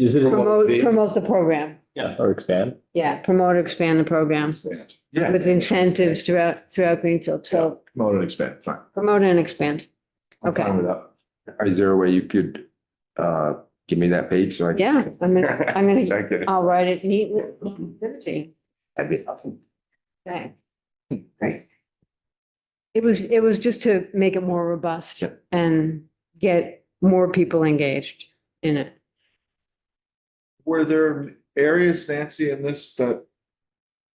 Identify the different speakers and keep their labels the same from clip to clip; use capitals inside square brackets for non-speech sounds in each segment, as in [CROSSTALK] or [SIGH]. Speaker 1: Is it
Speaker 2: Promote,
Speaker 1: the-
Speaker 2: promote the program.
Speaker 1: or expand?
Speaker 2: Yeah, promote, expand the program
Speaker 3: Yeah.
Speaker 2: with incentives throughout, throughout Greenfield. So
Speaker 3: Promote and expand, fine.
Speaker 2: promote and expand.
Speaker 3: I'm
Speaker 2: Okay.
Speaker 3: fine with that.
Speaker 4: Is there a way you could uh give me that page so I? can- [LAUGHS]
Speaker 2: Yeah, I'm gonna, I'm gonna,
Speaker 3: Second.
Speaker 2: I'll write it neatly. Liberty.
Speaker 4: That'd be helpful.
Speaker 2: Okay. Great. It was, it was just to make it more robust
Speaker 4: Yep.
Speaker 2: and get more people engaged in it.
Speaker 3: Were there areas, Nancy, in this that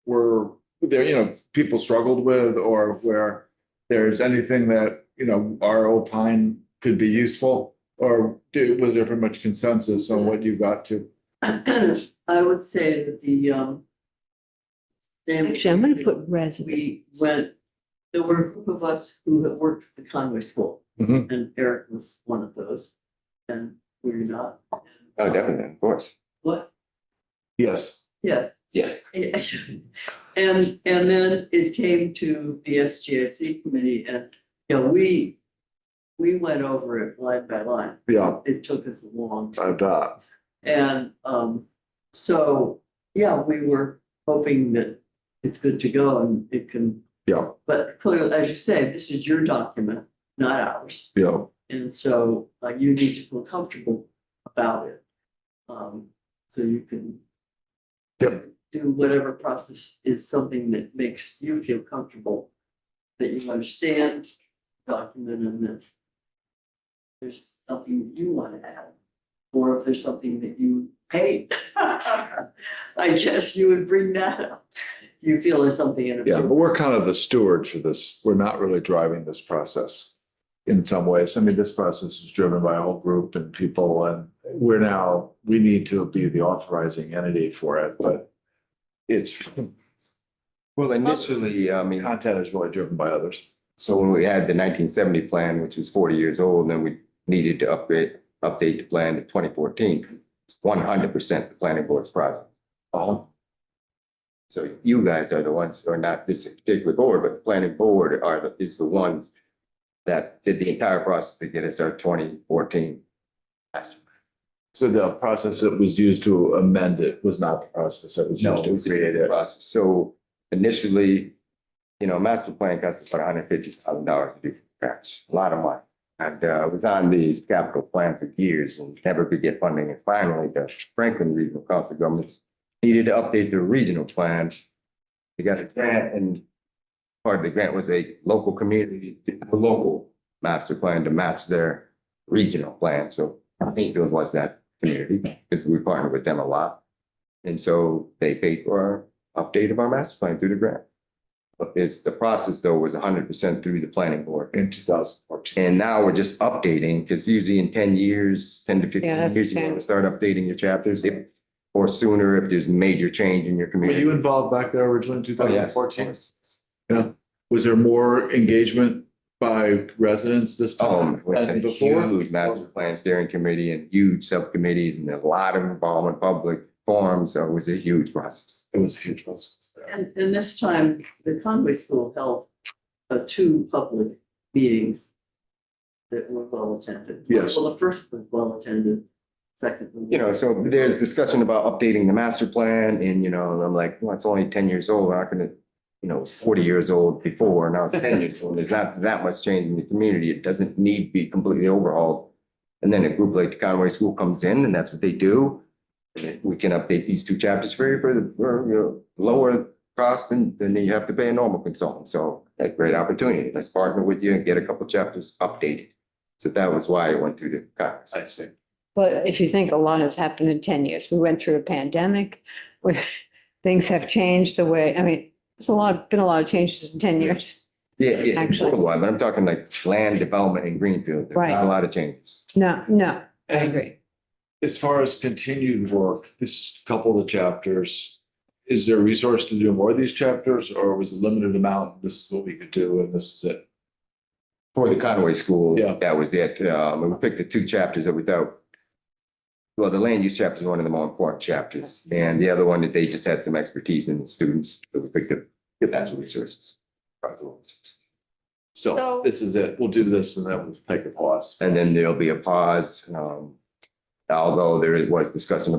Speaker 3: were there, you know, people struggled with or where there's anything that, you know, our opine could be useful? Or do, was there pretty much consensus on what you got to?
Speaker 5: I would say that the, um. standard-
Speaker 2: Actually, I'm gonna put resume.
Speaker 5: We went, there were a group of us who had worked at the Conway School.
Speaker 3: Mhm.
Speaker 5: And Eric was one of those, and we were not.
Speaker 4: Oh, definitely, of course.
Speaker 5: What,
Speaker 3: Yes.
Speaker 5: yes. [LAUGHS]
Speaker 4: Yes.
Speaker 5: Yeah. And, and then it came to the SGIC committee and, you know, we, we went over it line by line.
Speaker 3: Yeah,
Speaker 5: It took us a long time.
Speaker 3: I bet.
Speaker 5: And, um, so, yeah, we were hoping that it's good to go and it can,
Speaker 3: Yeah,
Speaker 5: but clearly, as you say, this is your document, not ours.
Speaker 3: yeah.
Speaker 5: And so, uh you need to feel comfortable about it. Um, so you can
Speaker 3: Yep.
Speaker 5: do whatever process is something that makes you feel comfortable, that you understand document and that there's something you want to add, or if there's something that you hate. [LAUGHS] I guess you would bring that up. You feel there's something in it.
Speaker 3: Yeah, but we're kind of the steward for this. We're not really driving this process in some ways. I mean, this process is driven by a whole group and people and we're now, we need to be the authorizing entity for it, but it's,
Speaker 4: Well, initially, I mean,
Speaker 3: content is really driven by others.
Speaker 4: so when we had the nineteen seventy plan, which was forty years old, then we needed to upgrade, update the plan to twenty fourteen. One hundred percent the planning board's project. Uh-huh.
Speaker 3: Oh,
Speaker 4: So you guys are the ones, or not this particular board, but the planning board are, the is the one that did the entire process to get us our twenty fourteen.
Speaker 3: so the process that was used to amend it was not the process that was
Speaker 4: No,
Speaker 3: used
Speaker 4: it was
Speaker 3: to
Speaker 4: a
Speaker 3: create it.
Speaker 4: process. So initially, you know, master plan cost us about hundred fifty thousand dollars to do from scratch, a lot of money. And uh, I was on the capital plan for years and never could get funding. And finally, the Franklin Regional Council of Governments needed to update their regional plan. They got a grant and part of the grant was a local community, a local master plan to match their regional plan. So Paintfield was that community because we partnered with them a lot. And so they paid for our update of our master plan through the grant. But it's, the process though was hundred percent through the planning board.
Speaker 3: In two thousand fourteen.
Speaker 4: And now we're just updating, because usually in ten years, ten to
Speaker 2: Yeah,
Speaker 4: fifteen
Speaker 2: that's
Speaker 4: years, you want to
Speaker 2: changed.
Speaker 4: start updating your chapters. if- Or sooner if there's major change in your
Speaker 3: Were you
Speaker 4: community.
Speaker 3: involved back there originally in two
Speaker 4: Oh,
Speaker 3: thousand
Speaker 4: yes, of
Speaker 3: fourteen?
Speaker 4: course.
Speaker 3: Was there more engagement by residents this
Speaker 4: Um,
Speaker 3: time
Speaker 4: we had
Speaker 3: than
Speaker 4: a
Speaker 3: before?
Speaker 4: huge master plan steering committee and huge subcommittees and a lot of involvement, public forums, so it was a huge process.
Speaker 3: It was a huge process.
Speaker 5: And, and this time, the Conway School held, uh, two public meetings that were well attended.
Speaker 3: Yes.
Speaker 5: Well, the first was well attended, second. was-
Speaker 4: You know, so there's discussion about updating the master plan and, you know, and I'm like, well, it's only ten years old, how can it? You know, it was forty years old before, now it's ten years old, there's not that much change in the community, it doesn't need to be completely overhauled. And then a group like the Conway School comes in and that's what they do. And then we can update these two chapters for you for the, for, you know, lower cost than, than you have to pay a normal consultant, so. That great opportunity, let's partner with you and get a couple chapters updated. So that was why I went through the Congress.
Speaker 3: I see.
Speaker 2: But if you think a lot has happened in ten years, we went through a pandemic, we, [LAUGHS] things have changed the way, I mean, it's a lot, been a lot of changes in ten years.
Speaker 4: Yeah, yeah,
Speaker 2: Actually.
Speaker 4: total lot, but I'm talking like land development in Greenfield, there's
Speaker 2: Right.
Speaker 4: not a lot of changes.
Speaker 2: No, no, I
Speaker 3: And
Speaker 2: agree.
Speaker 3: as far as continued work, this couple of chapters, is there a resource to do more of these chapters or was it limited amount? This is what we could do and this is it.
Speaker 4: For the Conway School,
Speaker 3: Yeah.
Speaker 4: that was it, um, and we picked the two chapters that we thought. Well, the land use chapter is one of the more important chapters, and the other one that they just had some expertise in the students, so we picked up the natural resources. practical resources.
Speaker 3: So
Speaker 2: So-
Speaker 3: this is it. We'll do this and then we'll take a pause.
Speaker 4: And then there'll be a pause, um, although there was discussion